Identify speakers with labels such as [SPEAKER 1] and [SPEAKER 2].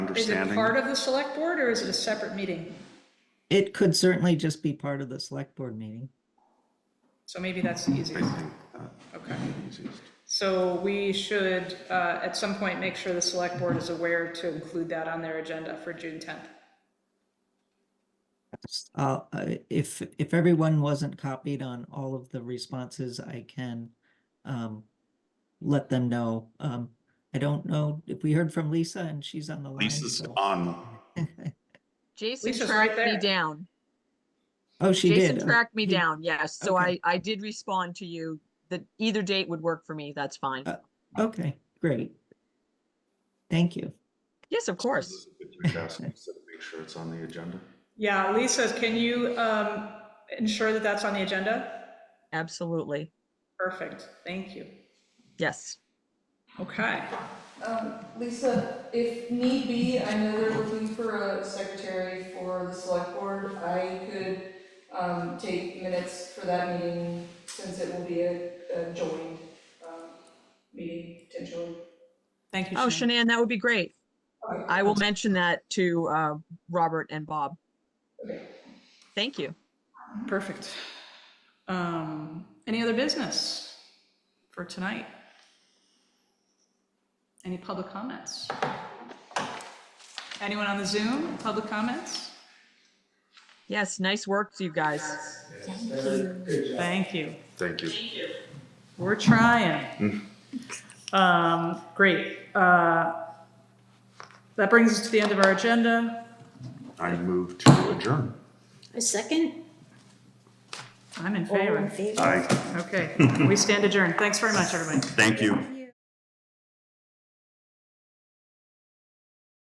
[SPEAKER 1] Is it
[SPEAKER 2] understanding.
[SPEAKER 1] part of the select board or is it a separate meeting?
[SPEAKER 3] It could certainly just be part of the select board meeting.
[SPEAKER 1] So maybe that's the
[SPEAKER 2] I
[SPEAKER 1] easiest.
[SPEAKER 2] think
[SPEAKER 1] Okay.
[SPEAKER 2] that's easiest.
[SPEAKER 1] So we should, uh, at some point, make sure the select board is aware to include that on their agenda for June tenth.
[SPEAKER 3] Uh, uh, if, if everyone wasn't copied on all of the responses, I can, um, let them know. Um, I don't know if we heard from Lisa and she's on the line.
[SPEAKER 2] Lisa's
[SPEAKER 3] so-
[SPEAKER 2] on.
[SPEAKER 4] Jason
[SPEAKER 1] Lisa's right
[SPEAKER 4] tracked me
[SPEAKER 1] there.
[SPEAKER 4] down.
[SPEAKER 3] Oh, she
[SPEAKER 4] Jason
[SPEAKER 3] did. Uh,
[SPEAKER 4] tracked me
[SPEAKER 3] he-
[SPEAKER 4] down, yes. So I,
[SPEAKER 3] Okay.
[SPEAKER 4] I did respond to you that either date would work for me. That's fine.
[SPEAKER 3] Uh, Okay, great. Thank you.
[SPEAKER 4] Yes, of course.
[SPEAKER 2] Make sure it's on the agenda.
[SPEAKER 1] Yeah, Lisa, can you, um, ensure that that's on the agenda?
[SPEAKER 4] Absolutely.
[SPEAKER 1] Perfect, thank you.
[SPEAKER 4] Yes.
[SPEAKER 1] Okay,
[SPEAKER 5] Um, Lisa, if need be, I know they're looking for a secretary for the select board. I could, um, take minutes for that meeting since it will be a, a joined, um, meeting potentially.
[SPEAKER 6] Thank you,
[SPEAKER 4] Oh,
[SPEAKER 6] Shannon.
[SPEAKER 4] Shanann, that would be great.
[SPEAKER 5] Okay,
[SPEAKER 4] I will mention that to, uh, Robert and Bob.
[SPEAKER 5] Okay.
[SPEAKER 4] Thank you.
[SPEAKER 1] perfect. Um, any other business for tonight? Any public comments? Anyone on the Zoom, public comments?
[SPEAKER 4] Yes, nice work to you guys.
[SPEAKER 6] Thank you.
[SPEAKER 2] Thank you.
[SPEAKER 1] We're trying. Um, great. Uh, That brings us to the end of our agenda.
[SPEAKER 2] I move to adjourn.
[SPEAKER 7] A second?
[SPEAKER 1] I'm in
[SPEAKER 7] All
[SPEAKER 1] favor.
[SPEAKER 7] in favor?
[SPEAKER 2] I,
[SPEAKER 1] Oh. Okay, we stand adjourned. Thanks very much, everybody.
[SPEAKER 2] thank you.